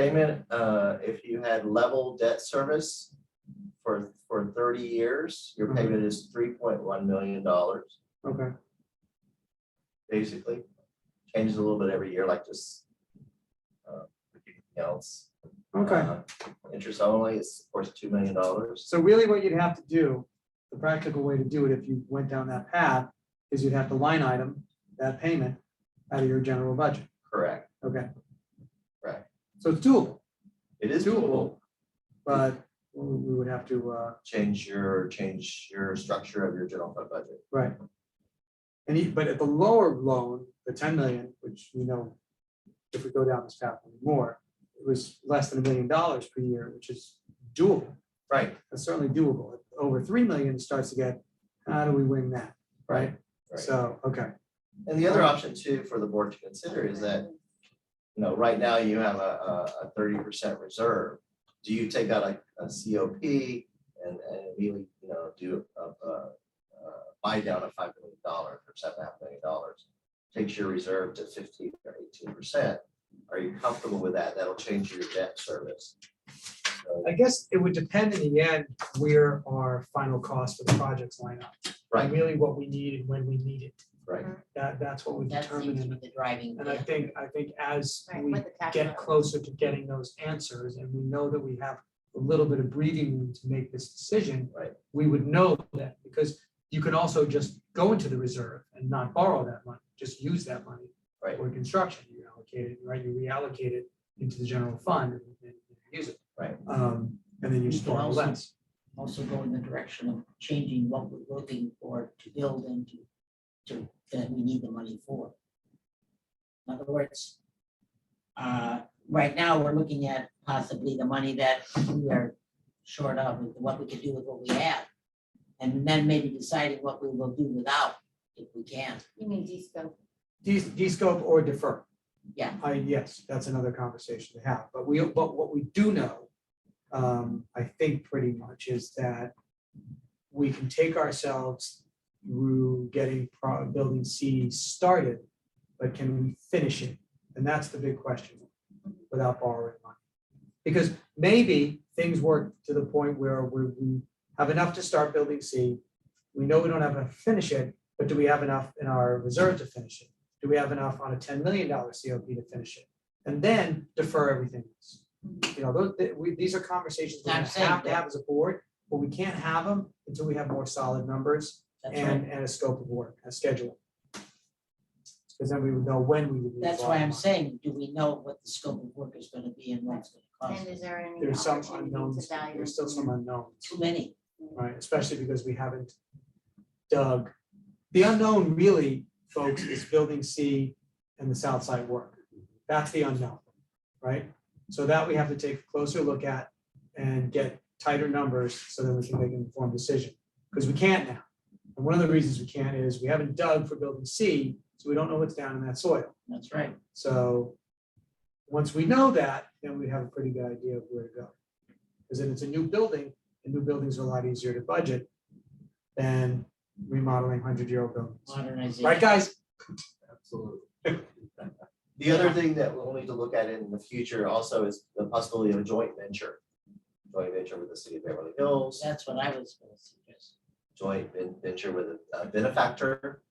payment, uh, if you had level debt service for, for thirty years, your Mhm. payment is three point one million dollars, Okay, basically. Changes a little bit every year, like just uh, with anything else. okay. Uh, Interest only is, of course, two million dollars. So really what you'd have to do, the practical way to do it if you went down that path, is you'd have to line item that payment out of your general budget. Correct. Okay. Right. So it's doable, It is doable. doable, but we we would have to, uh, Change your, change your structure of your general fund budget. right. And, e- but at the lower loan, the ten million, which you know, if we go down this path more, it was less than a million dollars per year, which is doable. Right. That's certainly doable. Over three million, it starts to get, how do we wing that, right? Right. So, okay. And the other option too for the board to consider is that, you know, right now you have a, a, a thirty percent reserve. Do you take out a, a COP and, and really, you know, do a, a, a buy down of five million dollars or seven and a half million dollars? Takes your reserve to fifteen or eighteen percent. Are you comfortable with that? That'll change your debt service. So, I guess it would depend in the end where our final cost for the projects line up. And Right, really what we need and when we need it. right. That, that's what we That determine. seems to be And- the driving. And I bit. think, I think as Right, we what the cash get flow. closer to getting those answers and we know that we have a little bit of breathing room to make this decision. Right. We would know that because you can also just go into the reserve and not borrow that money, just use that money. Right. For construction, you allocate it, right, you reallocate it into the general fund and and use it. Right. Um, and then you You just can borrow also- less. Also go in the direction of changing what we're looking for to build and to, to, that we need the money for. In other words, uh, right now, we're looking at possibly the money that we are short of, and what we can do with what we have. And then maybe deciding what we will do without, if we can. You mean Disco? De- De-scope or defer. Yeah. I, yes, that's another conversation to have, but we, but what we do know, um, I think pretty much is that we can take ourselves through getting pro- building C started, but can we finish it? And that's the big question, without borrowing money. Because maybe things work to the point where we, we have enough to start building C. We know we don't have enough to finish it, but do we have enough in our reserve to finish it? Do we have enough on a ten million dollar COP to finish it? And then defer everything else. You know, those, th- we, these are conversations we I'm saying have to that- have as a board, but we can't have them until we have more solid numbers That's right. and, and a scope of work, a schedule. Because then we would know when we would. need to That's borrow why I'm money. saying, do we know what the scope of work is gonna be and what it's gonna cost? And is there any There's some opportunity to unknowns, value? there's still some unknowns. Too many. right? Especially because we haven't dug. The unknown really, folks, is building C and the south side work. That's the unknown, right? So that we have to take a closer look at and get tighter numbers so that we can make an informed decision. Because we can't now. And one of the reasons we can't is we haven't dug for building C, so we don't know what's down in that soil. That's right. So once we know that, then we have a pretty good idea of where to go. Because then it's a new building, and new buildings are a lot easier to budget than remodeling hundred-year-old buildings. Modernization. Right, guys? Absolutely. The other thing that we'll need to look at in the future also is the possibility of a joint venture. Joint venture with the city of Beverly Hills, That's what I was gonna suggest. joint ven- venture with a benefactor.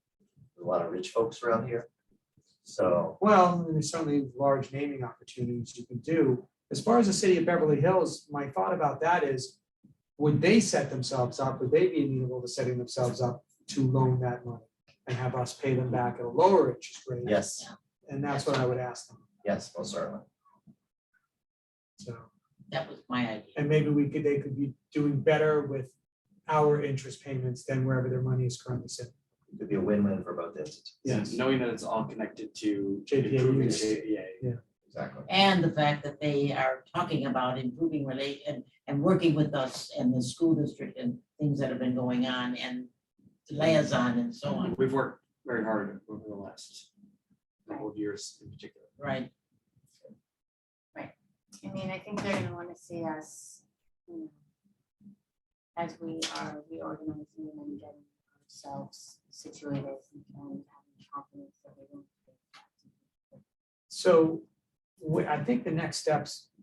There's A lot of rich folks around here. So, Well, there's certainly large naming opportunities you can do. As far as the city of Beverly Hills, my thought about that is, would they set themselves up, would they be amenable to setting themselves up to loan that money? And have us pay them back at a lower interest rate? yes, And that's what I would ask them, yes, most certainly. so. That was my idea. And maybe we could, they could be doing better with our interest payments than wherever their money is currently sitting. It could be a win-win for both entities. Yes. Knowing that it's all connected to JPA improving use. JPA. Exactly. And the fact that they are talking about improving relate and, and working with us and the school district and things that have been going on and liaison and so on, We've worked very hard over the last couple of years in particular. right? I mean, I think they're gonna wanna see us, you know, as we are reorganizing and getting ourselves situated and having confidence that we don't. So we- I think the next steps